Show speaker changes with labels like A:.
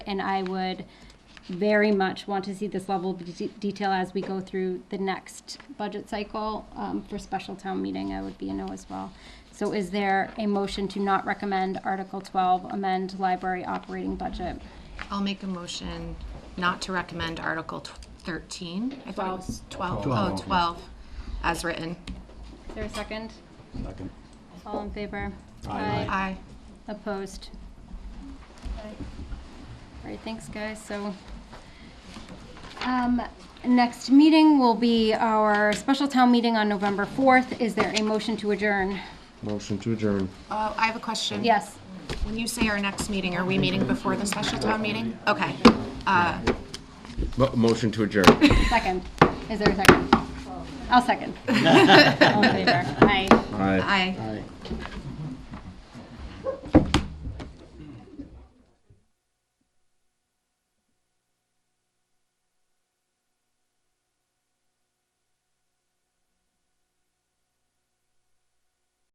A: And I would very much want to see this level of de- detail as we go through the next budget cycle um, for special town meeting. I would be a no as well. So is there a motion to not recommend Article 12, amend library operating budget?
B: I'll make a motion not to recommend Article tw- 13. I thought it was 12. Oh,
C: Twelve.
B: 12, as written.
A: Is there a second?
C: Second.
A: All in favor?
C: Aye.
B: Aye.
A: Opposed? All right, thanks, guys. So, um, next meeting will be our special town meeting on November 4th. Is there a motion to adjourn?
D: Motion to adjourn.
B: Oh, I have a question.
A: Yes.
B: When you say our next meeting, are we meeting before the special town meeting? Okay. Uh,
D: Mo- Motion to adjourn.
A: Second. Is there a second? I'll second. All in favor? Aye.
D: Aye.
B: Aye.
C: Aye.